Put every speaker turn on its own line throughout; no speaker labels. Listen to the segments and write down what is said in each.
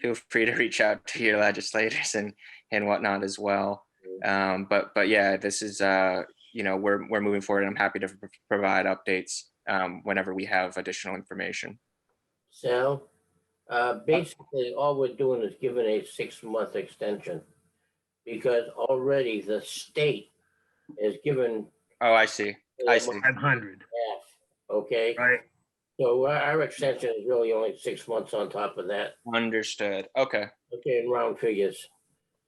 feel free to reach out to your legislators and and whatnot as well. Um, but but yeah, this is uh, you know we're we're moving forward, and I'm happy to pr- provide updates um, whenever we have additional information.
Sal, uh, basically, all we're doing is giving a six-month extension. Because already the state has given.
Oh, I see. I see.
half,
five hundred,
Okay,
right?
so our- our extension is really only six months on top of that,
Understood. Okay.
okay, in round figures.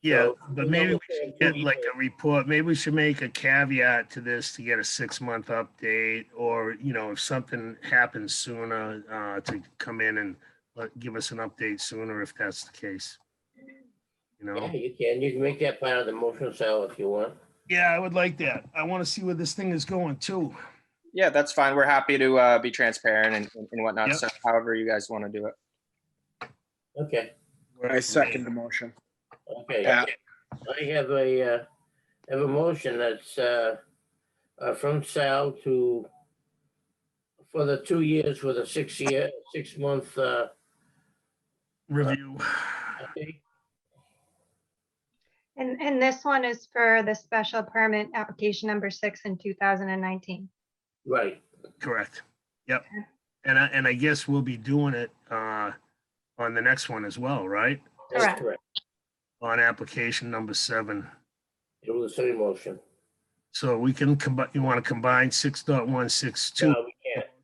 Yeah,
So,
but
you know,
maybe
we're
we should
saying
get
two
like
years.
a report, maybe we should make a caveat to this to get a six-month update, or, you know, if something happens sooner, uh, to come in and let, give us an update sooner if that's the case. You know?
Yeah, you can, you can make that part of the motion, Sal, if you want.
Yeah, I would like that. I want to see where this thing is going too.
Yeah, that's fine. We're happy to uh, be transparent and, and whatnot.
Yep.
So however you guys want to do it.
Okay,
I second the motion.
okay.
Yeah.
I have a, uh, have a motion that's, uh, uh, from Sal to, for the two years with a six-year, six-month, uh,
Review.
update.
And, and this one is for the special permit application number six in 2019.
right,
Correct. Yep. And I, and I guess we'll be doing it, uh, on the next one as well, right?
that's
Correct.
correct.
On application number seven.
It was the same motion.
So we can combine, you want to combine six dot one, six two,
No, we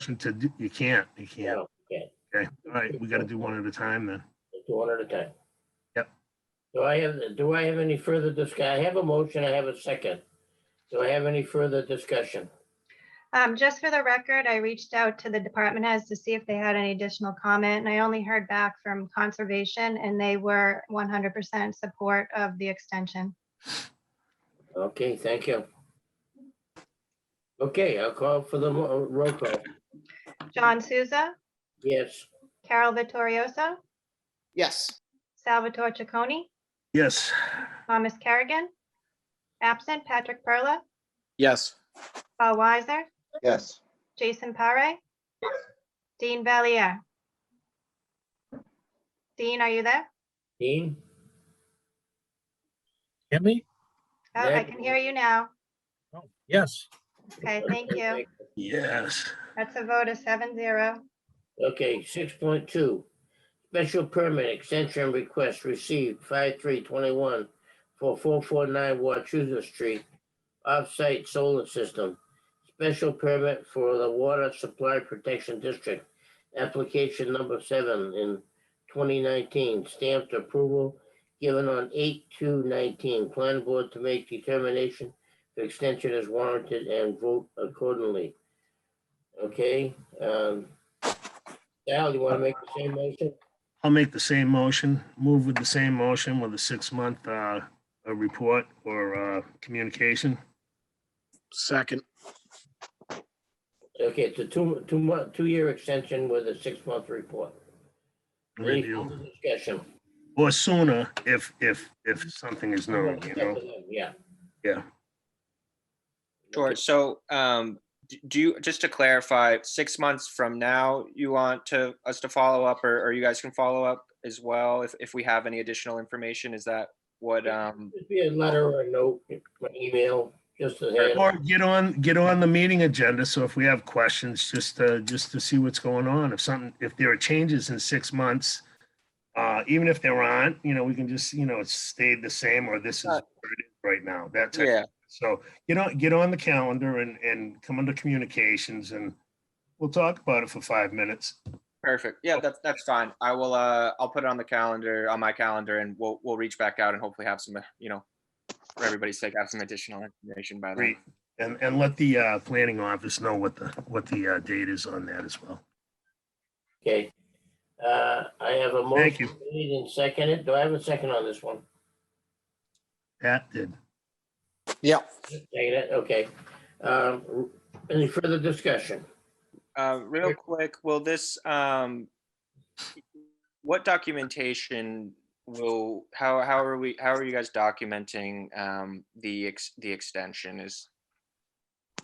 can't,
to, do- you can't, you can't.
no, we can't,
Okay, all right, we gotta do one at a time then.
Let's do one at a time.
Yep.
Do I have, do I have any further discuss, I have a motion, I have a second. Do I have any further discussion?
Um, just for the record, I reached out to the department heads to see if they had any additional comment, and I only heard back from conservation, and they were 100% support of the extension.
Okay, thank you. Okay, I'll call for the mo- roll call.
John Souza,
Yes,
Carol Vittorioso,
Yes.
Salvatore Chaconi,
Yes,
Thomas Kerrigan, absent Patrick Perla,
Yes.
Paul Weiser,
Yes.
Jason Pare, Dean Valier. Dean, are you there?
Dean?
Hear me?
Oh,
Yeah.
I can hear you now.
Yes.
Okay, Oh, thank you.
yes.
That's a vote of seven zero.
Okay, six point two, special permit extension request received five three twenty-one for four four nine Wachusett Street, off-site solar system. Special permit for the Water Supply Protection District, application number seven in twenty nineteen, stamped approval given on eight two nineteen, plan board to make determination if extension is warranted and vote accordingly. Okay, um, Al, you want to make the same motion?
I'll make the same motion, move with the same motion with a six-month, uh, uh report or, uh, communication.
Second.
Okay, it's a two, two month, two-year extension with a six-month report. Any
Review,
further Discussion.
or sooner if, if, if something is known, you know?
Yeah.
Yeah.
Sure. So um, d- do you, just to clarify, six months from now, you want to, us to follow up or, or you guys can follow up as well if, if we have any additional information? Is that what, um,
Just be a letter or a note, or email, just to hand.
Or get on, get on the meeting agenda, so if we have questions, just, uh, just to see what's going on, if something, if there are changes in six months, uh, even if there aren't, you know, we can just, you know, it stayed the same, or this is where it is right now, that type.
yeah,
So, you know, get on the calendar and, and come under communications, and we'll talk about it for five minutes.
perfect. Yeah, that's, that's fine. I will, uh, I'll put it on the calendar, on my calendar and we'll, we'll reach back out and hopefully have some, uh, you know, for everybody's sake, have some additional information by then.
Great. And, and let the, uh, planning office know what the, what the, uh, date is on that as well.
Okay. Uh, I have a motion.
Thank you.
Made and seconded. Do I have a second on this one?
Pat did.
Yeah.
Second it, okay. Um, any further discussion?
Uh, real
Here-
quick, will this, um, what documentation will, how, how are we, how are you guys documenting, um, the ex, the extension is?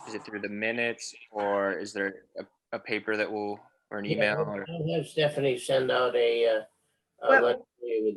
Is it through the minutes or is there a, a paper that will, or an email or?
I'll have Stephanie send out a, uh, a
Well-
letter agree with